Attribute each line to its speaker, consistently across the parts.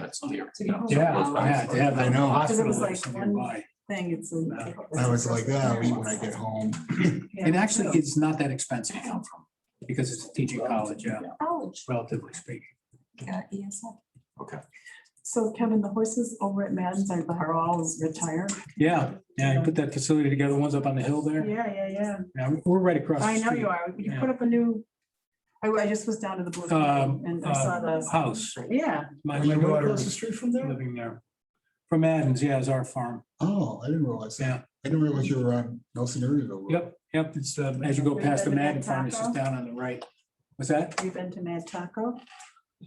Speaker 1: that's on the.
Speaker 2: Yeah, yeah, yeah, I know.
Speaker 3: Because it was
Speaker 2: hospitals
Speaker 3: like
Speaker 2: are
Speaker 3: one-
Speaker 2: nearby.
Speaker 3: thing, it's.
Speaker 2: Uh, I was like, yeah, I'll eat when I get home.
Speaker 3: Yeah.
Speaker 2: And actually, it's not that expensive to come from, because it's a teaching college, yeah,
Speaker 3: College,
Speaker 2: relatively speaking.
Speaker 3: yeah, ESL.
Speaker 1: Okay.
Speaker 3: So Kevin, the horses over at Madden's are are all retired?
Speaker 2: Yeah, yeah, you put that facility together, one's up on the hill there.
Speaker 3: Yeah, yeah, yeah.
Speaker 2: Yeah, we're right across. the
Speaker 3: I know
Speaker 2: street.
Speaker 3: you are. You
Speaker 2: Yeah.
Speaker 3: put up a new, I, I just was down to the blue
Speaker 2: Um,
Speaker 3: and I saw the,
Speaker 2: House.
Speaker 3: yeah.
Speaker 2: My
Speaker 4: Are
Speaker 2: my
Speaker 4: you right
Speaker 2: daughter
Speaker 4: across the
Speaker 2: is
Speaker 4: street from there?
Speaker 2: living there. From Adams, yeah, is our farm.
Speaker 4: Oh, I didn't realize that.
Speaker 2: Yeah.
Speaker 4: I didn't realize you were on Nelson Uriville. Road.
Speaker 2: Yep, yep, it's, um, as you go past the
Speaker 3: Have you been to
Speaker 2: Madden Farm, it's just
Speaker 3: Taco?
Speaker 2: down on the right. What's that?
Speaker 3: Have you been to Mad Taco?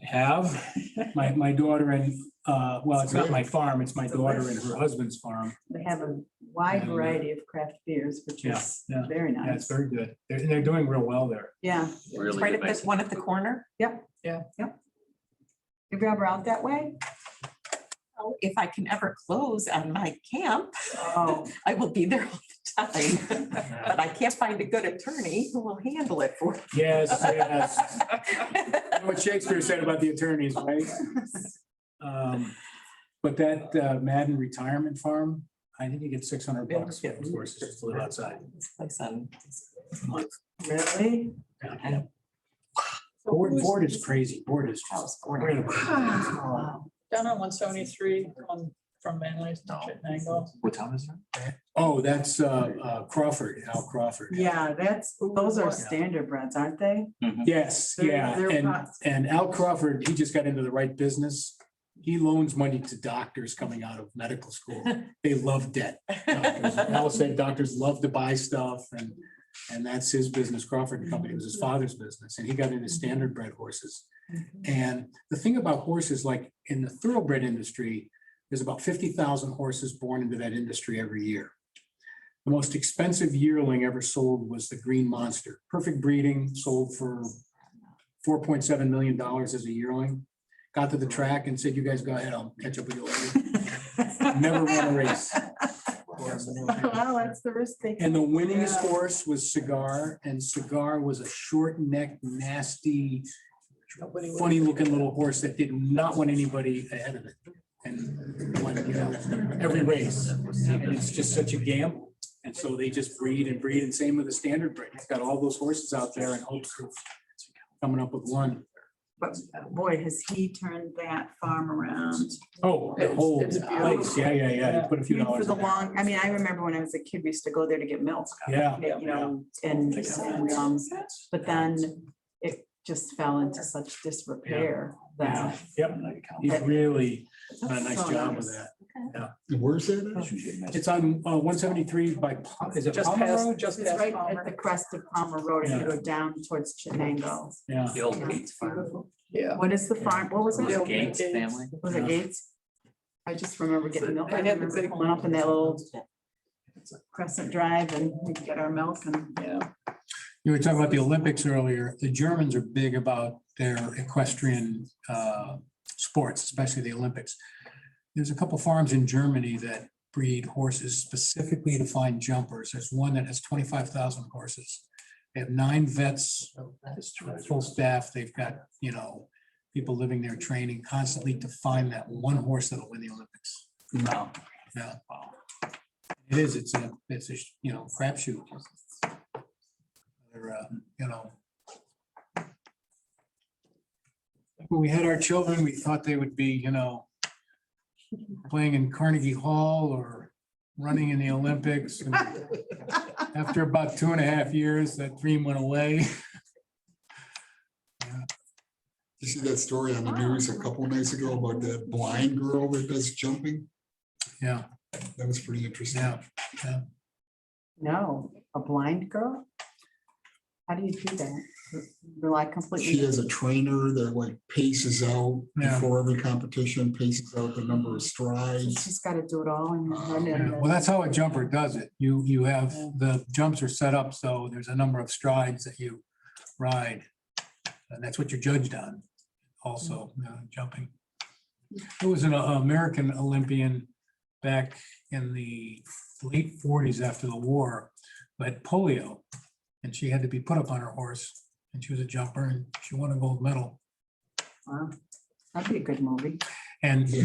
Speaker 2: Have, my, my daughter and, uh, well, it's not my farm, it's my daughter and her husband's farm.
Speaker 3: They have a wide
Speaker 2: Yeah.
Speaker 3: variety of craft beers, which
Speaker 2: Yeah,
Speaker 3: is
Speaker 2: yeah.
Speaker 3: very
Speaker 2: Yeah, it's
Speaker 3: nice.
Speaker 2: very good. They're, they're doing real well there.
Speaker 3: Yeah.
Speaker 1: Really
Speaker 5: Right
Speaker 1: good
Speaker 5: at this
Speaker 1: mix.
Speaker 5: one at the corner,
Speaker 3: If you're ever out that way?
Speaker 5: Oh, if I can ever close on my camp,
Speaker 3: Oh,
Speaker 5: I will be there all the time. But I can't find a good attorney who will handle it for. me.
Speaker 2: Yes, yes. You know What Shakespeare said about the attorneys, right? Um, But that uh, Madden Retirement Farm, I think you get six hundred bucks for those horses just to live outside.
Speaker 5: This place on-
Speaker 2: a month.
Speaker 3: really?
Speaker 2: Yeah. Board, board is crazy. Board is just.
Speaker 5: House corner.
Speaker 2: incredible. Oh.
Speaker 3: Wow.
Speaker 6: Down on one seventy-three, on, from Manly's to Chittenango.
Speaker 1: What time is it?
Speaker 2: Oh, that's uh, uh, Crawford, Al Crawford.
Speaker 3: Yeah, that's, those are standard breads, aren't they?
Speaker 2: Yes,
Speaker 3: They're-
Speaker 2: yeah,
Speaker 3: they're
Speaker 2: and,
Speaker 3: fast.
Speaker 2: and Al Crawford, he just got into the right business. He loans money to doctors coming out of medical school. They love debt. doctors. Al said doctors love to buy stuff and, and that's his business, Crawford and Company, it was his father's business, and he got into standard bred horses. And the thing about horses, like in the thoroughbred industry, there's about fifty thousand horses born into that industry every year. The most expensive yearling ever sold was the Green Monster, perfect breeding, sold for four point seven million dollars as a yearling. Got to the track and said, you guys go ahead, I'll catch up with you later. Never won a race.
Speaker 3: Well, that's the risk they.
Speaker 2: And the winningest
Speaker 3: Yeah.
Speaker 2: horse was Cigar, and Cigar was a short necked, nasty, funny looking little horse that did not want anybody ahead of it. And won, you know, every race. And it's just such a gamble. And so they just breed and breed, and same with the standard breed. It's got all those horses out there and hopes of coming up with one.
Speaker 3: But boy, has he turned that farm around.
Speaker 2: Oh, the
Speaker 6: It's-
Speaker 2: whole
Speaker 6: it's
Speaker 2: place. Yeah, yeah, yeah. You Put a few
Speaker 3: For
Speaker 2: dollars.
Speaker 3: the
Speaker 2: in there.
Speaker 3: long, I mean, I remember when I was a kid, we used to go there to get milk,
Speaker 2: Yeah.
Speaker 3: you know, and, and, um, but then it just fell into such disrepair
Speaker 2: Yeah.
Speaker 3: that.
Speaker 2: Yep. He's really done a nice job with that.
Speaker 4: And Where's that? at?
Speaker 2: It's on uh, one seventy-three by, Pa- is it
Speaker 6: Just
Speaker 2: Palmer
Speaker 6: past,
Speaker 2: Road?
Speaker 6: just
Speaker 3: It's
Speaker 6: past
Speaker 3: right
Speaker 6: Palmer.
Speaker 3: at the crest of Palmer Road, and you
Speaker 2: Yeah.
Speaker 3: go down towards Chenango.
Speaker 2: Yeah.
Speaker 1: The old Gates farm.
Speaker 6: Yeah.
Speaker 3: What is the farm, what was
Speaker 6: Yeah.
Speaker 3: it?
Speaker 1: Gates family.
Speaker 3: Was it Gates? I just remember getting milk, I
Speaker 6: They had the
Speaker 3: remember
Speaker 6: big-
Speaker 3: pulling up in that little Crescent Drive and we'd get our milk and.
Speaker 6: Yeah.
Speaker 2: You were talking about the Olympics earlier. The Germans are big about their equestrian uh, sports, especially the Olympics. There's a couple farms in Germany that breed horses specifically to find jumpers. There's one that has twenty-five thousand horses. They have nine vets, full staff. They've got, you know, people living there training constantly to find that one horse that'll win the Olympics. Wow. Yeah. It is, it's a, it's a, you know, crapshoot. They're, uh, you know. When we had our children, we thought they would be, you know, playing in Carnegie Hall or running in the Olympics. And After about two and a half years, that dream went away.
Speaker 4: You see that story on the news a couple nights ago about that blind girl that does jumping?
Speaker 2: Yeah,
Speaker 4: That was pretty interesting.
Speaker 2: yeah.
Speaker 3: No, a blind girl? How do you do that? Rely completely.
Speaker 4: She has a trainer that like paces out
Speaker 2: Yeah.
Speaker 4: before every competition, paces out the number of strides.
Speaker 3: She's gotta do it all in her head
Speaker 2: Yeah,
Speaker 3: and.
Speaker 2: Well, that's how a jumper does it. You, you have, the jumps are set up, so there's a number of strides that you ride. And that's what you're judged on, also, uh, jumping. There was an uh, American Olympian back in the late forties after the war, but polio. And she had to be put up on her horse, and she was a jumper, and she won a gold medal.
Speaker 3: Wow, That'd be a good movie.
Speaker 2: And